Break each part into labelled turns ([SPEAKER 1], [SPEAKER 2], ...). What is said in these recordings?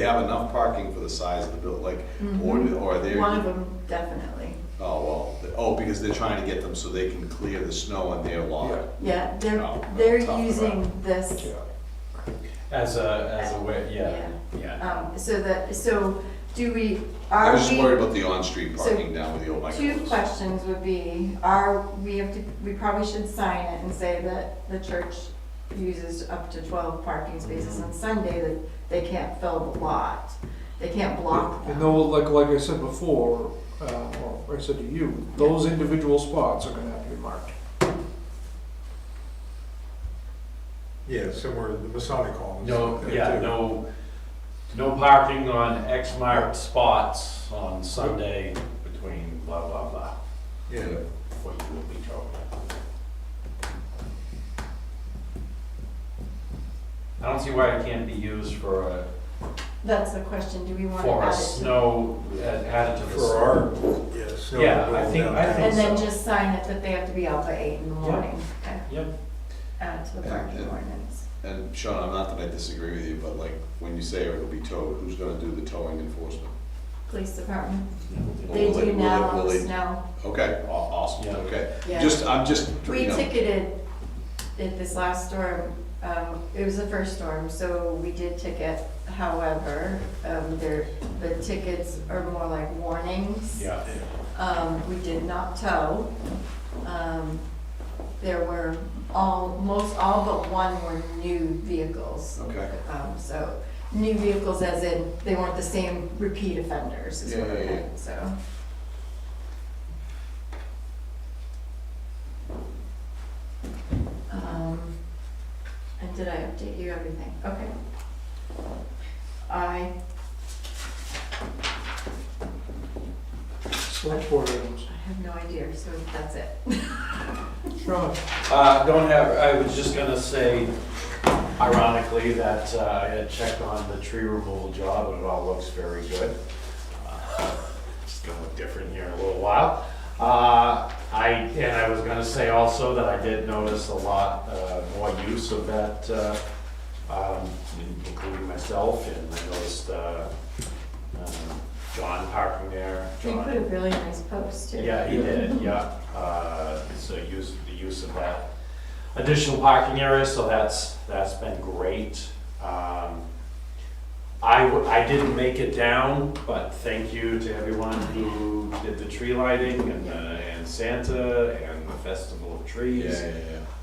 [SPEAKER 1] They have enough parking for the size of the building, like, or, or they're.
[SPEAKER 2] Mm-hmm. One of them, definitely.
[SPEAKER 1] Oh, well, the- oh, because they're trying to get them so they can clear the snow on their lot.
[SPEAKER 2] Yeah,
[SPEAKER 1] Oh,
[SPEAKER 2] they're, they're
[SPEAKER 1] tough to
[SPEAKER 2] using
[SPEAKER 1] run.
[SPEAKER 2] this,
[SPEAKER 3] As a, as a way, yeah, yeah.
[SPEAKER 2] um, so that, so do we,
[SPEAKER 1] I
[SPEAKER 2] are
[SPEAKER 1] was just worried
[SPEAKER 2] we?
[SPEAKER 1] about the on-street
[SPEAKER 2] So,
[SPEAKER 1] parking down with the old
[SPEAKER 2] Two
[SPEAKER 1] microwaves.
[SPEAKER 2] questions would be, are, we have to, we probably should sign it and say that the church uses up to twelve parking spaces on Sunday, that they can't fill the lot. They can't block
[SPEAKER 4] And
[SPEAKER 2] them.
[SPEAKER 4] though, like, like I said before, uh, or I said to you, those individual spots are gonna have to be marked.
[SPEAKER 5] Yeah, somewhere in the Masonic Hall.
[SPEAKER 3] No, yeah, no, no parking on X marked spots on Sunday between blah, blah, blah,
[SPEAKER 5] Yeah,
[SPEAKER 3] what you will be told. I don't see why it can't be used for a,
[SPEAKER 2] That's the question, do we want to
[SPEAKER 3] for a
[SPEAKER 2] add it? to-
[SPEAKER 3] snow, added to the.
[SPEAKER 5] for our, yeah, snow.
[SPEAKER 3] Yeah, I think- I think-
[SPEAKER 2] And then
[SPEAKER 3] so.
[SPEAKER 2] just sign it that they have to be out by eight in the morning, Okay,
[SPEAKER 3] Yep,
[SPEAKER 2] add to
[SPEAKER 1] Yeah,
[SPEAKER 2] the parking
[SPEAKER 1] yeah.
[SPEAKER 2] ordinance.
[SPEAKER 1] And Sean, I'm not that I disagree with you, but like, when you say it'll be towed, who's gonna do the towing enforcement?
[SPEAKER 2] Police department.
[SPEAKER 1] Will
[SPEAKER 2] They
[SPEAKER 1] will
[SPEAKER 2] do
[SPEAKER 1] will
[SPEAKER 2] now
[SPEAKER 1] will
[SPEAKER 2] on the
[SPEAKER 1] they-
[SPEAKER 2] snow.
[SPEAKER 1] Okay, aw- awesome,
[SPEAKER 3] Yeah.
[SPEAKER 1] okay.
[SPEAKER 2] Yeah.
[SPEAKER 1] Just, I'm just,
[SPEAKER 2] We
[SPEAKER 1] you know,
[SPEAKER 2] ticketed at this last storm, um, it was the first storm, so we did ticket. However, um, there, the tickets are more like warnings.
[SPEAKER 3] yeah,
[SPEAKER 2] Um, we did not tow. Um, there were all, most all but one were new vehicles.
[SPEAKER 1] okay.
[SPEAKER 2] Um, so new vehicles as in they weren't the same repeat offenders is what
[SPEAKER 1] Yeah,
[SPEAKER 2] I
[SPEAKER 1] yeah, yeah.
[SPEAKER 2] meant, so. Um, and did I update you everything? Okay. I,
[SPEAKER 4] Select board items.
[SPEAKER 2] I have no idea, so that's it.
[SPEAKER 4] Sean,
[SPEAKER 3] Uh, don't have, I was just gonna say ironically that uh, I had checked on the tree removal job and it all looks very good. Uh, It's gonna look different here in a little while. Uh, I, and I was gonna say also that I did notice a lot uh, more use of that, uh, um, including myself and I noticed, uh, um, John parking there.
[SPEAKER 2] You
[SPEAKER 3] John-
[SPEAKER 2] put a really nice post too.
[SPEAKER 3] yeah, he did, yeah. Uh, So use, the use of that additional parking area, so that's, that's been great. Um, I, w- I didn't make it down, but thank you to everyone who did the tree lighting and, uh, and Santa and the Festival of
[SPEAKER 1] Yeah,
[SPEAKER 3] Trees.
[SPEAKER 1] yeah,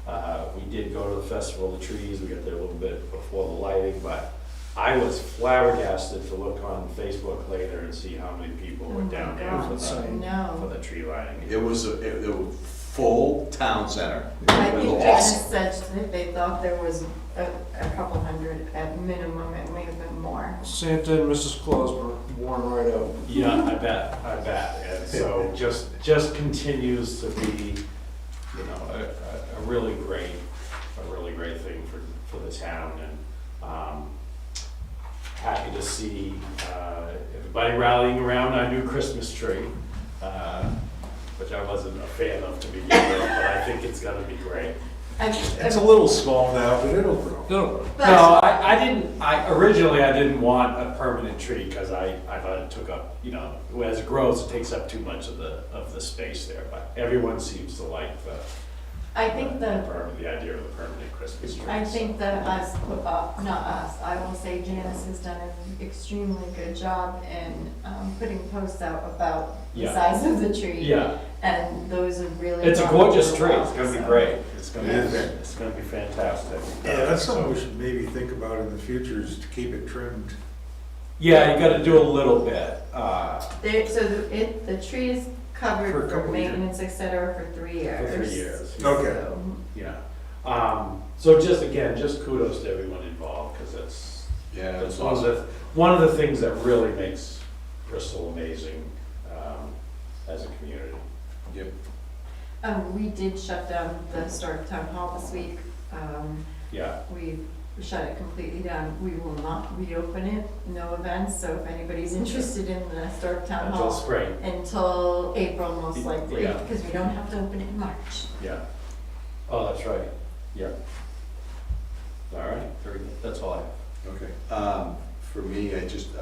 [SPEAKER 1] yeah.
[SPEAKER 3] Uh, we did go to the Festival of Trees, we got there a little bit before the lighting, but I was flabbergasted to look on Facebook later and see how many people were
[SPEAKER 2] Oh my
[SPEAKER 3] down there for
[SPEAKER 2] God.
[SPEAKER 3] the, for
[SPEAKER 2] No,
[SPEAKER 3] the tree lighting.
[SPEAKER 1] It was, a- it, it was full town center.
[SPEAKER 2] I
[SPEAKER 1] It was
[SPEAKER 2] think
[SPEAKER 1] awesome.
[SPEAKER 2] Dennis said that they thought there was a, a couple hundred at minimum, it may have been more.
[SPEAKER 4] Santa and Mrs. Claus were worn right out.
[SPEAKER 3] Yeah, I bet, I bet. And so just, just continues to be, you know, a, a- a really great, a really great thing for, for the town and, um, happy to see, uh, everybody rallying around our new Christmas tree, uh, which I wasn't a fan of to begin with, but I think it's gonna be great.
[SPEAKER 2] I-
[SPEAKER 5] It's a little small now, but it'll grow.
[SPEAKER 4] No,
[SPEAKER 3] No, I, I didn't, I, originally I didn't want a permanent tree, because I, I thought it took up, you know, as it grows, it takes up too much of the, of the space there, but everyone seems to like the,
[SPEAKER 2] I think
[SPEAKER 3] the
[SPEAKER 2] the,
[SPEAKER 3] perm- the idea of a permanent Christmas tree.
[SPEAKER 2] I
[SPEAKER 3] so.
[SPEAKER 2] think that us, uh, not us, I will say Janice has done an extremely good job in, um, putting posts out about the
[SPEAKER 3] Yeah.
[SPEAKER 2] size of the tree.
[SPEAKER 3] Yeah,
[SPEAKER 2] And those have really.
[SPEAKER 3] it's a
[SPEAKER 2] gone
[SPEAKER 3] gorgeous
[SPEAKER 2] over
[SPEAKER 3] tree,
[SPEAKER 2] well,
[SPEAKER 3] it's gonna be
[SPEAKER 2] so.
[SPEAKER 3] great, it's gonna be,
[SPEAKER 5] It is.
[SPEAKER 3] it's gonna be fantastic.
[SPEAKER 5] Yeah, that's something we should maybe think about in the future, is to keep it trimmed.
[SPEAKER 3] Yeah, you gotta do a little bit, uh,
[SPEAKER 2] They, so the, it, the tree is
[SPEAKER 5] For
[SPEAKER 2] covered
[SPEAKER 5] a
[SPEAKER 2] for
[SPEAKER 5] couple years.
[SPEAKER 2] maintenance, et cetera, for three
[SPEAKER 3] for
[SPEAKER 2] years.
[SPEAKER 3] three years.
[SPEAKER 5] Okay.
[SPEAKER 2] So,
[SPEAKER 3] Yeah, um, so just, again, just kudos to everyone involved, because it's,
[SPEAKER 1] Yeah, it
[SPEAKER 3] That's
[SPEAKER 1] was
[SPEAKER 3] one of
[SPEAKER 1] awesome.
[SPEAKER 3] the, one of the things that really makes Bristol amazing um, as a community.
[SPEAKER 1] Yep.
[SPEAKER 2] Um, we did shut down the historic town hall this week. Um,
[SPEAKER 3] Yeah,
[SPEAKER 2] we shut it completely down. We will not reopen it, no events, so if anybody's interested in the historic town
[SPEAKER 3] until
[SPEAKER 2] hall
[SPEAKER 3] spring,
[SPEAKER 2] until April most likely,
[SPEAKER 3] Yeah.
[SPEAKER 2] because we don't have to open it in March.
[SPEAKER 3] yeah. Oh, that's right, yeah. All right, very good, that's all I have.
[SPEAKER 1] Okay. Um, for me, I just,